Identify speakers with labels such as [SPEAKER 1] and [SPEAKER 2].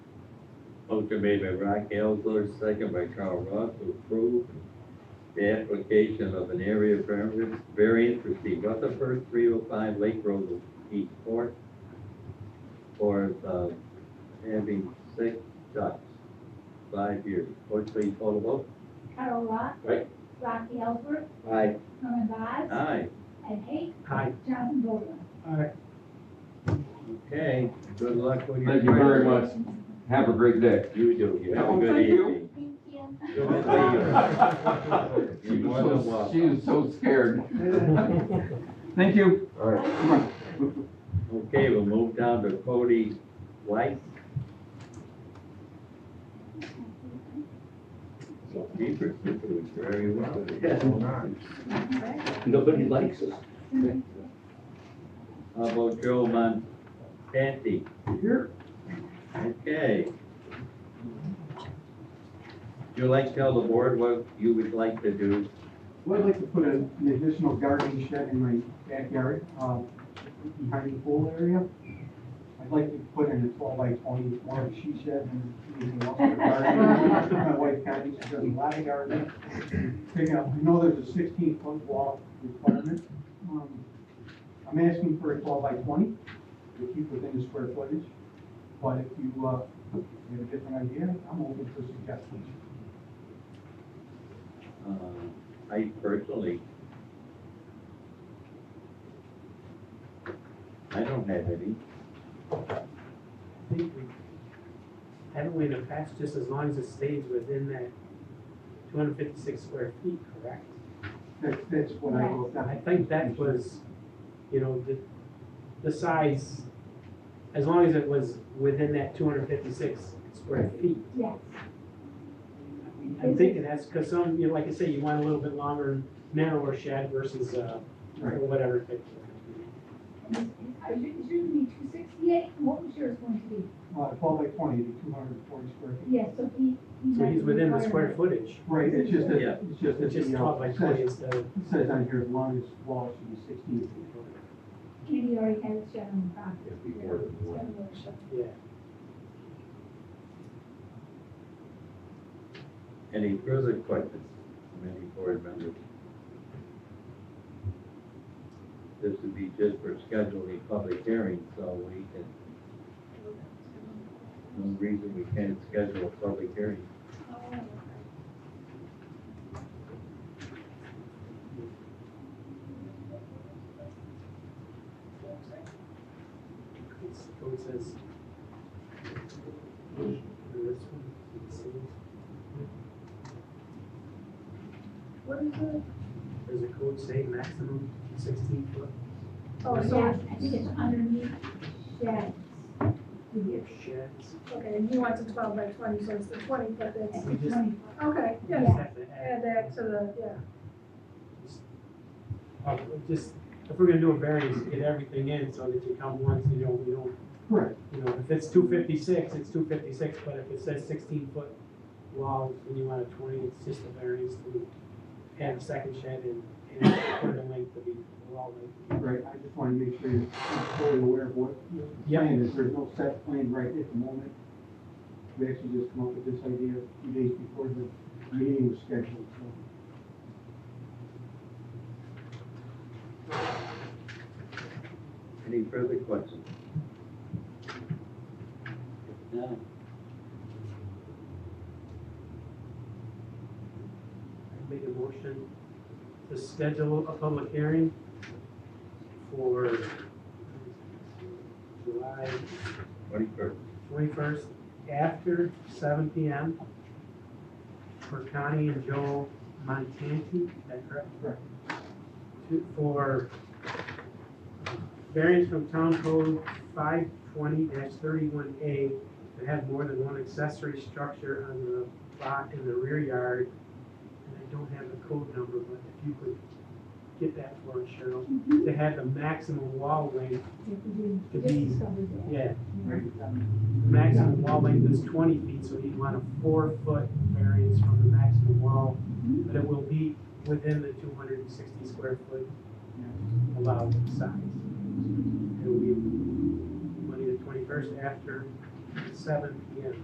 [SPEAKER 1] Motion made by Rock Elsler, second by Carl Ross, to approve the application of an area variance variance for Steve Rutherford, three oh five Lake Road East Court for, uh, having six ducks, five years. Clerk, please call the vote.
[SPEAKER 2] Carl Rock.
[SPEAKER 1] Aye.
[SPEAKER 2] Rocky Ellsworth,
[SPEAKER 1] Aye.
[SPEAKER 2] Norman Vaz,
[SPEAKER 1] Aye.
[SPEAKER 2] Ed Hay,
[SPEAKER 3] Aye.
[SPEAKER 2] Jonathan Goldman.
[SPEAKER 1] Okay, good luck with your.
[SPEAKER 4] Thank you very much. Have a great day.
[SPEAKER 1] You do, you have a
[SPEAKER 4] Oh,
[SPEAKER 1] good
[SPEAKER 4] thank you.
[SPEAKER 1] evening.
[SPEAKER 2] Thank you.
[SPEAKER 1] Good to see you.
[SPEAKER 4] She
[SPEAKER 1] You're more
[SPEAKER 4] was
[SPEAKER 1] than
[SPEAKER 4] so,
[SPEAKER 1] welcome.
[SPEAKER 4] she was so scared. Thank you.
[SPEAKER 5] All right.
[SPEAKER 4] Come on.
[SPEAKER 1] Okay, we'll move down to Cody White. So Peter, you do it very well.
[SPEAKER 5] Nobody likes us.
[SPEAKER 1] How about Joe Montante?
[SPEAKER 3] Here.
[SPEAKER 1] Okay. Would you like to tell the board what you would like to do?
[SPEAKER 3] Well, I'd like to put a- an additional garden shed in my backyard, um, behind the pool area. I'd like to put in a twelve by twenty, more of a she shed and anything else in the garden. My wife Connie, she does a lot of gardening. Pick up, I know there's a sixteen foot wall requirement. Um, I'm asking for a twelve by twenty to keep within the square footage. But if you, uh, have a different idea, I'm open for suggestions.
[SPEAKER 1] Uh, I personally, I don't have any.
[SPEAKER 6] I think we Haven't we in the past, just as long as it stays within that two hundred fifty-six square feet, correct?
[SPEAKER 3] That's, that's what I wrote down.
[SPEAKER 6] I think that was, you know, the, the size, as long as it was within that two hundred fifty-six square feet.
[SPEAKER 2] Yes.
[SPEAKER 6] I'm thinking that's, cause some, you know, like I say, you want a little bit longer, narrower shed versus, uh, or
[SPEAKER 3] Right.
[SPEAKER 6] whatever. it-
[SPEAKER 2] And this- I should, it shouldn't be two sixty-eight, what was yours going to be?
[SPEAKER 3] Uh, twelve by twenty, it'd be two hundred and forty square feet.
[SPEAKER 2] Yes, so he. he
[SPEAKER 6] So
[SPEAKER 2] might
[SPEAKER 6] he's
[SPEAKER 2] be
[SPEAKER 6] within the
[SPEAKER 2] required.
[SPEAKER 6] square footage,
[SPEAKER 3] Right, it's just
[SPEAKER 1] Yeah.
[SPEAKER 3] that, it's just that.
[SPEAKER 6] which is
[SPEAKER 3] the, uh,
[SPEAKER 6] twelve by twenty instead of,
[SPEAKER 3] It says on here, the longest wall should be sixteen feet.
[SPEAKER 2] And he already has a shed on the property.
[SPEAKER 5] It'd be more than one.
[SPEAKER 6] yeah.
[SPEAKER 1] Any further questions from any board members? This would be just for scheduling a public hearing, so we can, no reason we can't schedule a public hearing.
[SPEAKER 2] Oh,
[SPEAKER 6] It's- It says. And this one, it says,
[SPEAKER 2] What is it?
[SPEAKER 6] Does the code say maximum sixteen foot?
[SPEAKER 2] Oh,
[SPEAKER 6] Yes.
[SPEAKER 2] yeah, I think it's underneath sheds. Yes.
[SPEAKER 6] Sheds.
[SPEAKER 7] Okay, and he wants a twelve by twenty, so it's the twenty, but
[SPEAKER 2] That's
[SPEAKER 7] that's,
[SPEAKER 2] the
[SPEAKER 6] Just-
[SPEAKER 2] 20.
[SPEAKER 7] okay,
[SPEAKER 6] You
[SPEAKER 7] yes,
[SPEAKER 6] just have to add-
[SPEAKER 7] add that to the, yeah,
[SPEAKER 6] uh, Just, if we're gonna do a variance, get everything in so that you come once, you know, you don't,
[SPEAKER 3] Correct.
[SPEAKER 6] you know, if it's two fifty-six, it's two fifty-six, but if it says sixteen foot wall and you want a twenty, it's just a variance to add a second shed and, and put the length to be, the wall length.
[SPEAKER 3] Right, I just wanna make sure you're fully aware of what the plan is, there's no set plan right at the moment. We actually just come up with this idea a few days before the meeting was scheduled, so.
[SPEAKER 1] Any further questions? If not,
[SPEAKER 6] Make a motion to schedule a public hearing for July
[SPEAKER 1] twenty-first,
[SPEAKER 6] twenty-first after seven P M. For Connie and Joe Montanti, is that correct?
[SPEAKER 3] Correct.
[SPEAKER 6] To- For variance from town code five twenty thirty-one A to have more than one accessory structure on the lot in the rear yard. And I don't have the code number, but if you could get that for us, Cheryl,
[SPEAKER 2] Mhm.
[SPEAKER 6] to have the maximum wall length,
[SPEAKER 2] If we do-
[SPEAKER 6] To
[SPEAKER 2] just
[SPEAKER 6] be-
[SPEAKER 2] discovered that.
[SPEAKER 6] yeah,
[SPEAKER 3] Right, um,
[SPEAKER 6] maximum wall length is twenty feet, so you'd want a four-foot variance from the maximum wall, but it will be within the two hundred and sixty square foot allowed size. It will be Monday the twenty-first after seven P M.